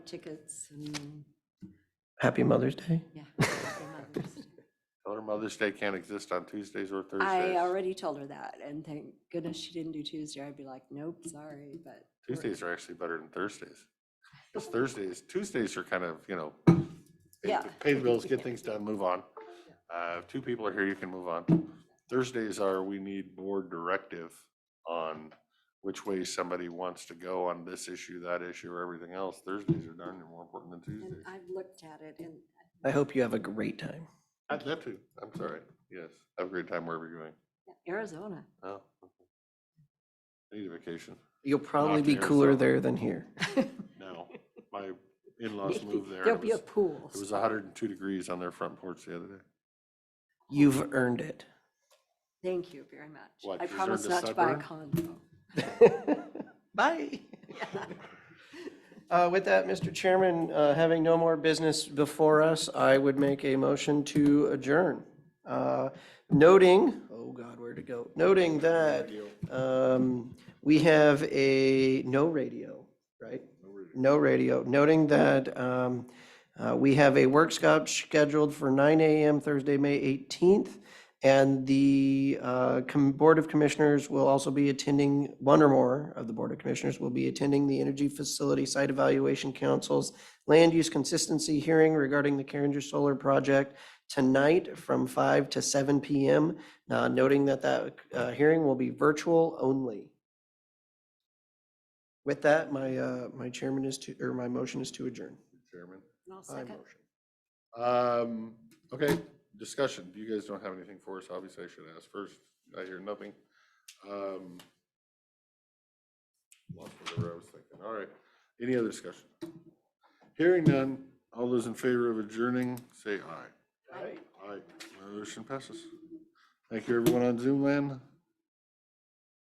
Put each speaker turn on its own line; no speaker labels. tickets and,
Happy Mother's Day.
yeah. Happy Mother's Day.
Tell her Mother's Day can't exist on Tuesdays or
I
Thursdays.
already told her that, and thank goodness she didn't do Tuesday. I'd be like, nope, sorry, but. we're-
Tuesdays are actually better than Thursdays. Because Thursdays, Tuesdays are kind of, you know, pay-
Yeah,
pay
I
the
think
bills,
we
get
can.
things done, move on. Uh, if Two people are here, you can move on. Thursdays are, we need board directive on which way somebody wants to go on this issue, that issue, or everything else. Thursdays are darn near more important than
And
Tuesdays.
I've looked at it and
I hope you have a great time.
I'd love to. I'm sorry. Yes. Have a great time wherever you're going.
Arizona.
Oh. okay. I Need a vacation.
You'll probably
to
be cooler
Arizona.
there than here.
No, my in-laws moved there.
There'll
and It
be a
was-
pool.
it was hundred and two degrees on their front porch the other day.
You've earned it.
Thank you very much.
What,
I
deserve
promise
to
not to buy a
sunburn?
condo.
Bye. Uh, With that, Mr. Chairman, uh, having no more business before us, I would make a motion to adjourn. Uh, Noting, oh God, where'd it go? Noting that um, we have a no radio, right? No radio. Noting that um, uh, we have a workshop scheduled for 9 AM Thursday, May 18th. And the uh, com- Board of Commissioners will also be attending, one or more of the Board of Commissioners will be attending the Energy Facility Site Evaluation Council's Land Use Consistency Hearing regarding the Carringer Solar Project tonight from 5 to 7 PM, uh, noting that that uh, hearing will be virtual only. With that, my, uh, my chairman is to, or my motion is to adjourn.
Chairman.
And I'll
I
second.
motion.
Um, okay, discussion. You guys don't have anything for us. Obviously, I should ask first. I hear nothing. Um, Lost whatever I was thinking. All right. Any other discussion? Hearing none. All those in favor of adjourning, say aye. Aye. Aye. Motion passes. Thank you, everyone on Zoom land.